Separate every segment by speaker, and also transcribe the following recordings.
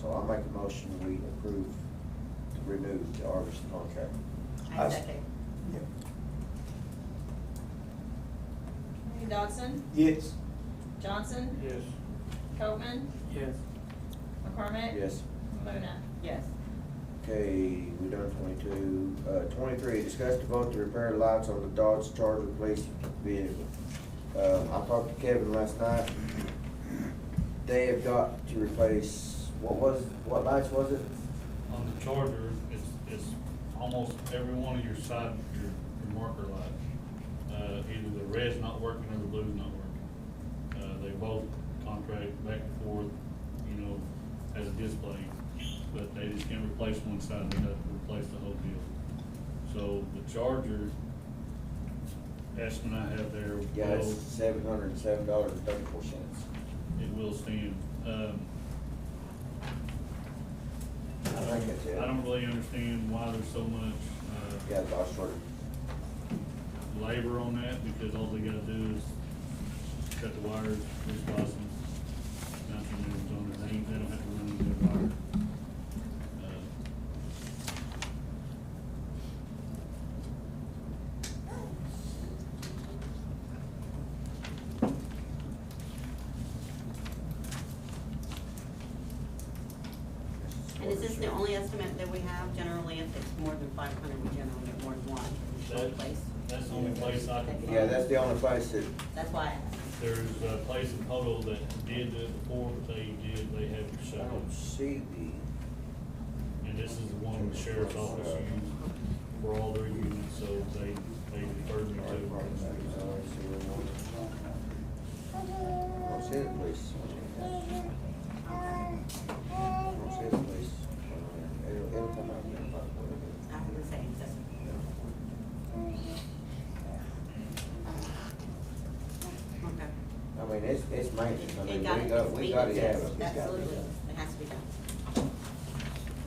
Speaker 1: So I'll make a motion, we approve, to remove the Argus contract.
Speaker 2: I
Speaker 3: I
Speaker 2: s-
Speaker 3: second.
Speaker 4: Dodson,
Speaker 2: Yes.
Speaker 4: Johnson,
Speaker 5: Yes.
Speaker 4: Copman,
Speaker 5: Yes.
Speaker 4: McCormick.
Speaker 1: Yes.
Speaker 4: Luna.
Speaker 3: Yes.
Speaker 1: Okay, we done twenty-two. Uh, twenty-three, discuss the vote to repair lights on the Dodge Charger police vehicle. Uh, I talked to Kevin last night. They have got to replace, what was, what lights was it?
Speaker 6: On the Charger, it's, it's almost every one of your side, your, your marker lights. Uh, either the red's not working or the blue's not working. Uh, they both contract back and forth, you know, as a display, but they just can't replace one side, they have to replace the whole deal. So the Charger, estimate I have there.
Speaker 1: Yeah, it's
Speaker 6: will-
Speaker 1: seven hundred and seven dollars and thirty-four cents.
Speaker 6: it will stand. Um, I
Speaker 1: I think it's it.
Speaker 6: don't, I don't really understand why there's so much,
Speaker 1: Yeah,
Speaker 6: uh,
Speaker 1: Dodge Charger.
Speaker 6: labor on that, because all they gotta do is cut the wires, respawn them, nothing moves on it, they, ain't- they don't have to run their wire.
Speaker 3: And is this the only estimate that we have? Generally, if it's more than five hundred, we generally get more than one
Speaker 6: Uh,
Speaker 3: one place.
Speaker 6: that- That's the only place I can.
Speaker 1: Yeah, that's
Speaker 6: find.
Speaker 1: the only place that,
Speaker 3: That's why I asked.
Speaker 6: There's a place in Poto that did do it before, but they did, they have to
Speaker 1: I
Speaker 6: shut
Speaker 1: don't
Speaker 6: it.
Speaker 1: see
Speaker 6: And this is the one the sheriff's office used for all their units, so they, they referred
Speaker 1: the.
Speaker 6: me
Speaker 1: fire department, I don't see
Speaker 6: to.
Speaker 1: where it was. Don't see it, please. Don't see it, please. It'll, it'll come out.
Speaker 3: I was gonna say, that's, okay.
Speaker 1: I mean, it's, it's maintenance, I mean,
Speaker 3: It got,
Speaker 1: we got,
Speaker 3: it's
Speaker 1: we gotta
Speaker 3: needed, yes,
Speaker 1: have it.
Speaker 3: absolutely. It has to be done.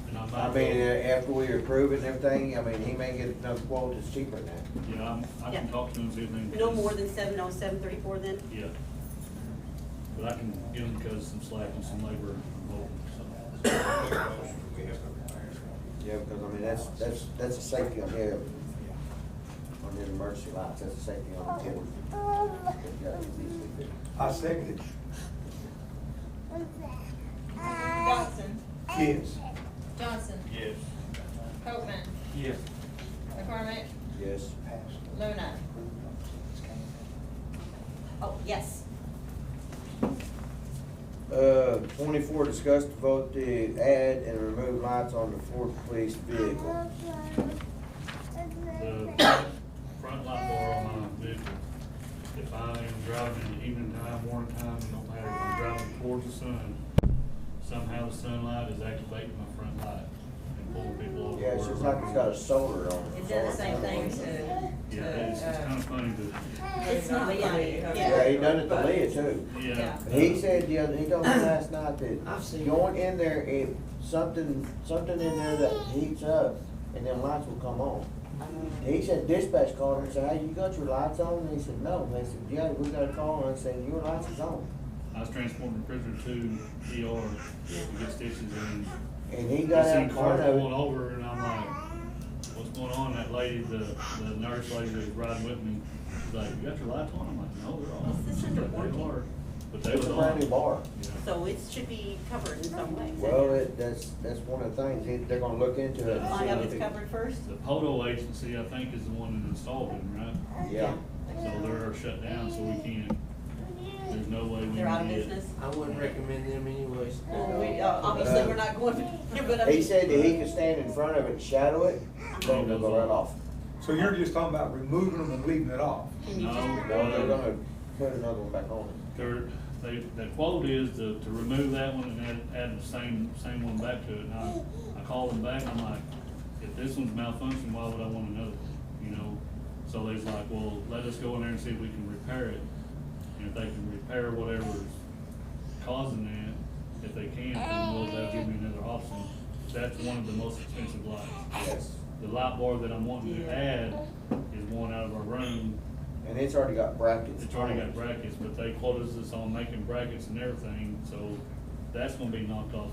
Speaker 6: And I
Speaker 1: I
Speaker 6: might,
Speaker 1: mean, uh,
Speaker 6: go-
Speaker 1: after we approve it and everything, I mean, he may get another quote that's cheaper than that.
Speaker 6: yeah, I'm, I can
Speaker 3: Yeah.
Speaker 6: talk to him, see if they.
Speaker 3: No more than seven oh seven thirty-four then?
Speaker 6: Yeah. But I can give him cause some slack and some labor, involved, so.
Speaker 1: Yeah, because I mean, that's, that's, that's a safety on here, on the emergency lights, that's a safety on the board. It's gotta be easily fixed.
Speaker 2: I second it.
Speaker 4: Dodson,
Speaker 2: Yes.
Speaker 4: Johnson,
Speaker 6: Yes.
Speaker 4: Copman,
Speaker 5: Yes.
Speaker 4: McCormick,
Speaker 1: Yes,
Speaker 4: Luna.
Speaker 3: Oh, yes.
Speaker 1: uh, twenty-four, discuss to vote to add and remove lights on the Ford police vehicle.
Speaker 6: The front light bar on my vehicle, if I am driving in the evening time, morning time, it don't matter, if I'm driving towards the sun, somehow the sunlight is activating my front light and pulling people over.
Speaker 1: Yeah, it's just
Speaker 6: wherever
Speaker 1: like it's
Speaker 6: I'm
Speaker 1: got a
Speaker 6: going.
Speaker 1: solar on it.
Speaker 7: It does the same thing to.
Speaker 6: Yeah, it's, it's kinda funny, but,
Speaker 3: uh, It's not funny.
Speaker 1: Yeah, he done it to Leah too.
Speaker 6: yeah.
Speaker 3: Yeah.
Speaker 1: He said the other, he told me last night
Speaker 7: I've
Speaker 1: that
Speaker 7: seen
Speaker 1: going in there, if something, something in there that heats up, and then lights will come on. He said dispatch called him and said, hey, you got your lights on? And he said, no. And they said, yeah, we got a call, and I said, your lights is on.
Speaker 6: I was transporting prisoner to ER to get stitches and
Speaker 1: And he got
Speaker 6: I
Speaker 1: out in
Speaker 6: seen car
Speaker 1: front
Speaker 6: pulling
Speaker 1: of it.
Speaker 6: over and I'm like, what's going on? That lady, the, the nurse lady that was riding with me, she's like, you got your lights on? I'm like, no, they're on.
Speaker 3: Is this
Speaker 6: She's
Speaker 3: under
Speaker 6: like, "They
Speaker 3: warranty?"
Speaker 6: are." But they
Speaker 1: It's
Speaker 6: was
Speaker 1: a
Speaker 6: on.
Speaker 1: brand new bar.
Speaker 6: Yeah.
Speaker 3: So it should be covered in some way. is that-
Speaker 1: Well, it, that's, that's one of the things, they- they're gonna look into it. and see
Speaker 3: Find out
Speaker 1: what
Speaker 3: if
Speaker 1: they-
Speaker 3: Oh, it's covered first?
Speaker 6: The Poto agency, I think, is the one that installed it, right?
Speaker 1: Yeah.
Speaker 6: So they're shut down, so we can't, there's no way we
Speaker 3: They're out
Speaker 6: can
Speaker 3: of
Speaker 6: get.
Speaker 3: business?
Speaker 7: I wouldn't recommend them anyways.
Speaker 3: Well, we, uh, obviously, we're not going, to- but I mean.
Speaker 1: He said that he could stand in front of it and shadow it, then they'll go right off.
Speaker 2: So you're just talking about removing them and leaving it off?
Speaker 6: No,
Speaker 1: No, they're
Speaker 6: uh,
Speaker 1: gonna put another one back on it.
Speaker 6: There, they, the quote is to, to remove that one and add, add the same, same one back to it, and I, I called them back, I'm like, if this one's malfunctioning, why would I want another one, you know? So they was like, well, let us go in there and see if we can repair it, and if they can repair whatever's causing that, if they can, then we'll, they'll give me another option. That's one of the most expensive lights.
Speaker 1: Yes.
Speaker 6: The light bar that I'm wanting to add is one out of our room,
Speaker 1: And it's already got brackets.
Speaker 6: it's already got brackets, but they quoted us on making brackets and everything, so that's gonna be knocked off